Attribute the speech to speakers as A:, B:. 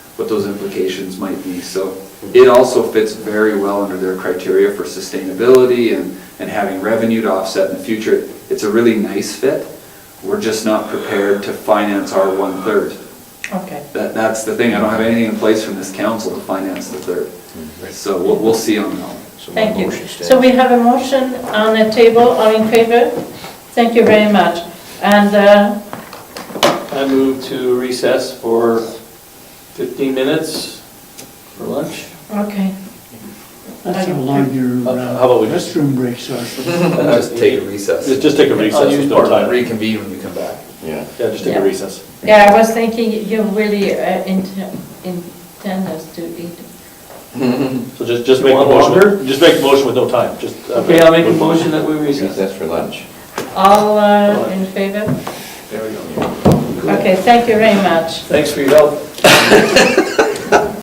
A: what those implications might be. So it also fits very well under their criteria for sustainability and, and having revenue to offset in the future. It's a really nice fit. We're just not prepared to finance our one-third.
B: Okay.
A: That, that's the thing, I don't have anything in place from this council to finance the
C: Mm-hmm.
A: third. So we'll, we'll see on that. one.
D: So my
B: Thank you.
D: motion stands.
B: So we have a motion on the table, all in favor? Thank you very much. And uh,
E: I move to recess for 15 minutes for lunch.
B: Okay,
F: That's how long your
D: Uh,
F: uh,
D: how about we just-
F: restroom breaks are.
C: Just take a recess.
D: Just just take a recess,
E: I'll use
D: there's no
E: part of
D: time. Yeah,
C: Reconvene when you come back.
D: just take
B: Yeah.
D: a recess.
B: yeah, I was thinking you really uh, int- intend us to eat.
D: So just, just make a
E: Want
D: motion,
E: longer?
D: just make a motion with no time, just. uh,
E: Okay, I'll make a motion that we recess.
C: Recess for lunch.
B: All uh, in favor?
C: There we go.
B: Okay, thank you very much.
E: Thanks for your help.